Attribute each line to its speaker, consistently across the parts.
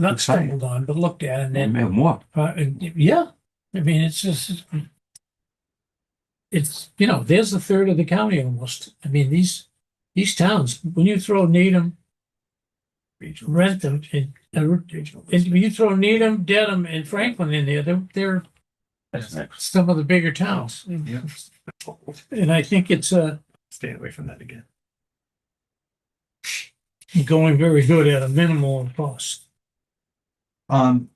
Speaker 1: not
Speaker 2: Looks like it.
Speaker 1: stumbled on, but looked at and then,
Speaker 2: Man, what?
Speaker 1: uh, yeah, I mean, it's just, it's, you know, there's a third of the county almost. I mean, these, these towns, when you throw Needham, Rentham, and, uh, and when you throw Needham, Dedham and Franklin in there, they're, they're
Speaker 3: That's next.
Speaker 1: some of the bigger towns.
Speaker 2: Mm-hmm.
Speaker 3: Yeah.
Speaker 1: And I think it's, uh,
Speaker 3: Stay away from that again.
Speaker 1: going very good at a minimal cost.
Speaker 3: Um,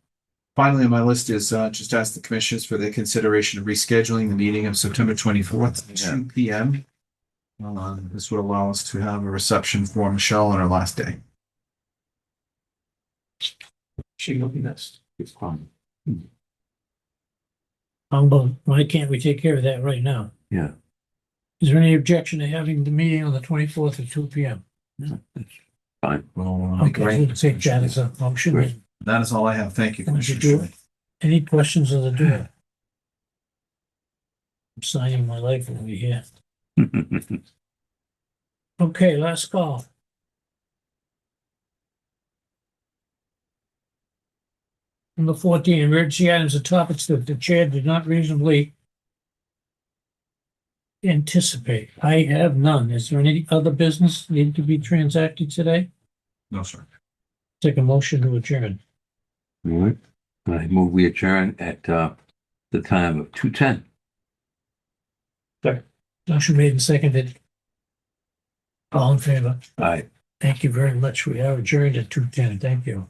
Speaker 3: finally, on my list is, uh, just ask the commissioners for their consideration of rescheduling the meeting of September twenty-fourth, two P M. Uh, this would allow us to have a reception for Michelle on her last day.
Speaker 2: She will be missed. It's fine.
Speaker 1: Um, but why can't we take care of that right now?
Speaker 2: Yeah.
Speaker 1: Is there any objection to having the meeting on the twenty-fourth at two P M?
Speaker 2: Yeah, that's Fine.
Speaker 3: Well, uh,
Speaker 1: Okay, we'll take that as a
Speaker 2: Great.
Speaker 1: motion.
Speaker 3: That is all I have. Thank you,
Speaker 1: Why don't you
Speaker 3: Commissioner.
Speaker 1: do
Speaker 3: Shirley.
Speaker 1: Any questions of the door? I'm signing my life over here. Okay, last call. Number fourteen, emergency items or topics that the chair did not reasonably anticipate. I have none. Is there any other business need to be transacted today?
Speaker 3: No, sir.
Speaker 1: Take a motion to adjourn.
Speaker 2: All right. I move we adjourn at, uh, the time of two ten.
Speaker 1: Motion made and seconded. All in favor?
Speaker 2: All right.
Speaker 1: Thank you very much. We are adjourned at two ten. Thank you.